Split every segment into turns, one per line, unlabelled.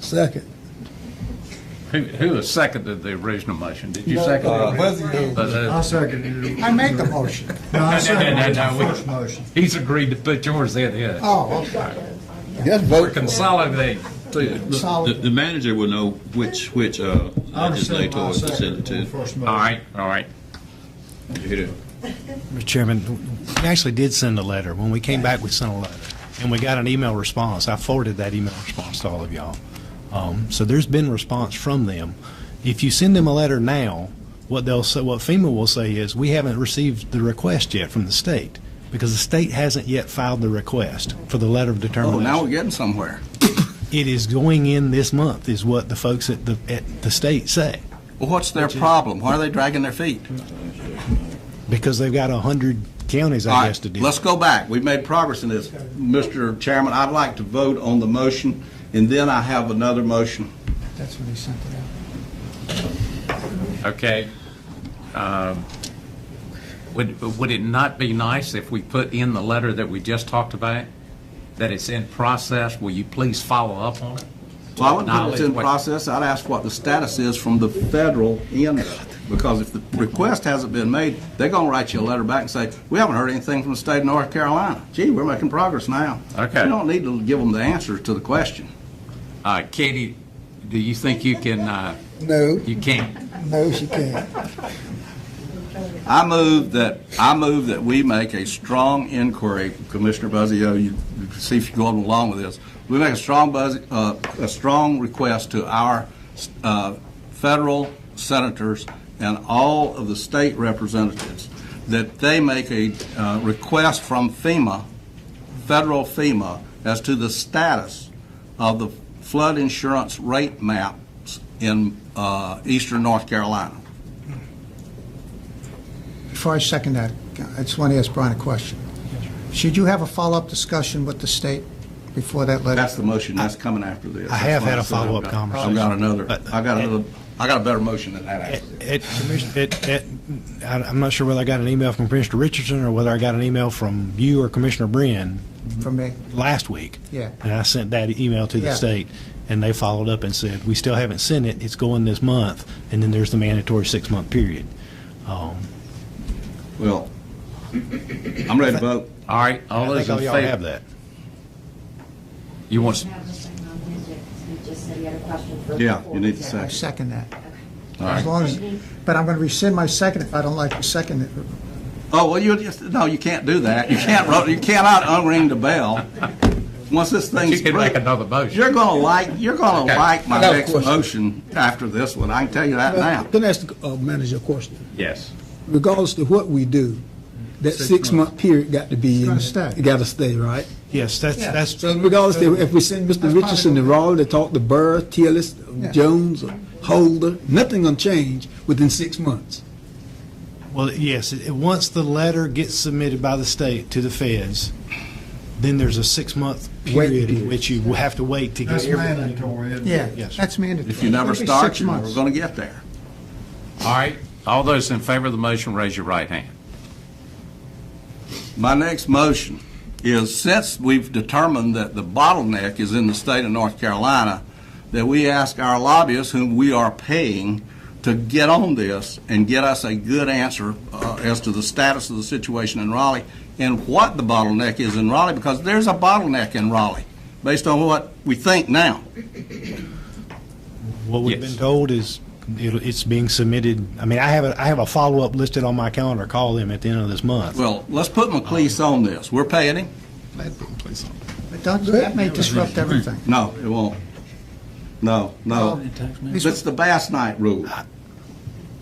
Second.
Who, who has seconded the original motion? Did you
No,
second
uh,
it?
Wesley did.
Uh,
second
I made the motion.
No, I second
No,
the
no, no, we-
first motion.
He's agreed to put yours in, yeah.
Oh, okay.
Just vote for it.
Consolidate, too.
Solid.
The, the manager will know which, which, uh,
I understand why I
legislator to send
seconded
it
the
to.
first motion.
All right, all right.
Mr. Chairman, we actually did send a letter. When we came back, we sent a letter, and we got an email response. I forwarded that email response to all of y'all. Um, So there's been response from them. If you send them a letter now, what they'll say, what FEMA will say is, we haven't received the request yet from the state, because the state hasn't yet filed the request for the letter of
Oh, now we're
determination.
getting somewhere.
It is going in this month, is what the folks at the, at the state say,
Well, what's their problem? Why are they dragging their feet?
because they've got 100 counties,
All
I
right,
guess, to deal with.
Let's go back. We've made progress in this. Mr. Chairman, I'd like to vote on the motion, and then I have another motion.
That's when he sent it out.
Okay. Um, Would, would it not be nice if we put in the letter that we just talked about? That it's in process? Will you please follow up on it?
Well, I would put it in
Acknowledge what-
process, I'd ask what the status is from the federal end, because if the request hasn't been made, they're gonna write you a letter back and say, we haven't heard anything from the state of North Carolina. Gee, we're making progress now.
Okay.
You don't need to give them the answer to the question.
Uh, Katie, do you think you can, uh,
No,
you can't?
no, she can't.
I move that, I move that we make a strong inquiry, Commissioner Buzzio, you you see if you're going along with this. We make a strong buzz, uh, a strong request to our, uh, federal senators and all of the state representatives that they make a, uh, request from FEMA, federal FEMA, as to the status of the flood insurance rate maps in, uh, eastern North Carolina.
Before I second that, I just want to ask Brian a question. Should you have a follow-up discussion with the state before that letter?
That's the motion, that's coming after this.
I have had a
That's what I said.
follow-up conversation.
I've got another,
But- uh,
I got another, I got a better motion than that, actually.
It, Commissioner, it, it, I- I'm not sure whether I got an email from Commissioner Richardson or whether I got an email from you or Commissioner Bryn
For me?
last week.
Yeah.
And I sent that email to
Yeah.
the state, and they followed up and said, we still haven't sent it, it's going this month, and then there's the mandatory six-month period. Um,
Well, I'm ready to vote.
All right, all
I
those
think
in
all
favor?
y'all have that.
You want,
You have the same on Wednesday, 'cause you just said you had a question for.
Yeah, you need to
before.
I
second.
second that.
All
As
right.
long as, but I'm going to rescind my second if I don't like the second. it.
Oh, well, you just, no, you can't do that. You can't, ro- you cannot unring the bell. Once this
you
thing's
can make
through,
another motion.
you're gonna like, you're gonna
Okay.
like my
I got a
next
question.
motion after this one. I can tell you that now.
Can I ask the uh, manager a question?
Yes.
Regardless of what we do, that six-month period got to be.
It's gotta
in-
stay.
It got to stay, right?
Yes, that's,
Yeah.
that's,
So regardless, if if we send Mr.
probably
Richardson to
gonna-
Raleigh to talk to Burr, Tillis,
Yeah.
Jones, or Holder, nothing gonna change within six months.
Well, yes, it- it- once the letter gets submitted by the state to the feds, then there's a six-month
Wait
period in
period.
which you will have to wait to get
That's
everything.
mandatory, isn't it?
Yeah,
Yes.
that's mandatory.
If you never
It'll be
start,
six
you're never
months.
gonna get there.
All right, all those in favor of the motion, raise your right hand.
My next motion is, since we've determined that the bottleneck is in the state of North Carolina, that we ask our lobbyists, whom we are paying, to get on this and get us a good answer uh, as to the status of the situation in Raleigh and what the bottleneck is in Raleigh, because there's a bottleneck in Raleigh, based on what we think now.
What we've
Yes.
been told is it'll- it's being submitted, I mean, I have a, I have a follow-up listed on my calendar, call them at the end of this month.
Well, let's put McLeese on this. We're paying him?
But don't, that may disrupt everything.
No, it won't. No, no. It's the Bass Night rule.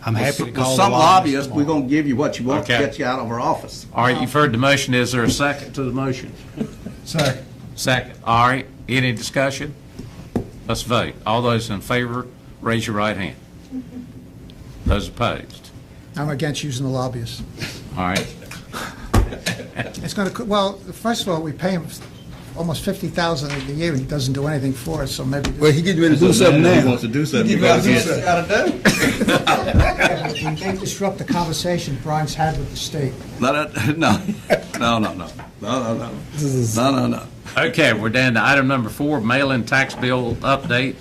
I'm happy to
Well,
call the
Some
lobbyists
lobbyists, we're
tomorrow.
going to give you what you want to
Okay.
get you out of our office.
All right, you've heard the motion, is there a second to the motion?
Second.
Second. All right, any discussion? Let's vote. All those in favor, raise your right hand. Those opposed?
I'm against using the lobbyists.
All right,
It's going to, well, first of all, we pay him almost 50000 a year, and he doesn't do anything for us, so maybe.
Well, he getting ready to do something now.
to do something.
It may disrupt the conversation Brian's had with the state.
No, no, no, no, no, no, no, no, no, no, no.
okay, we're down to item number four, mail-in tax bill update.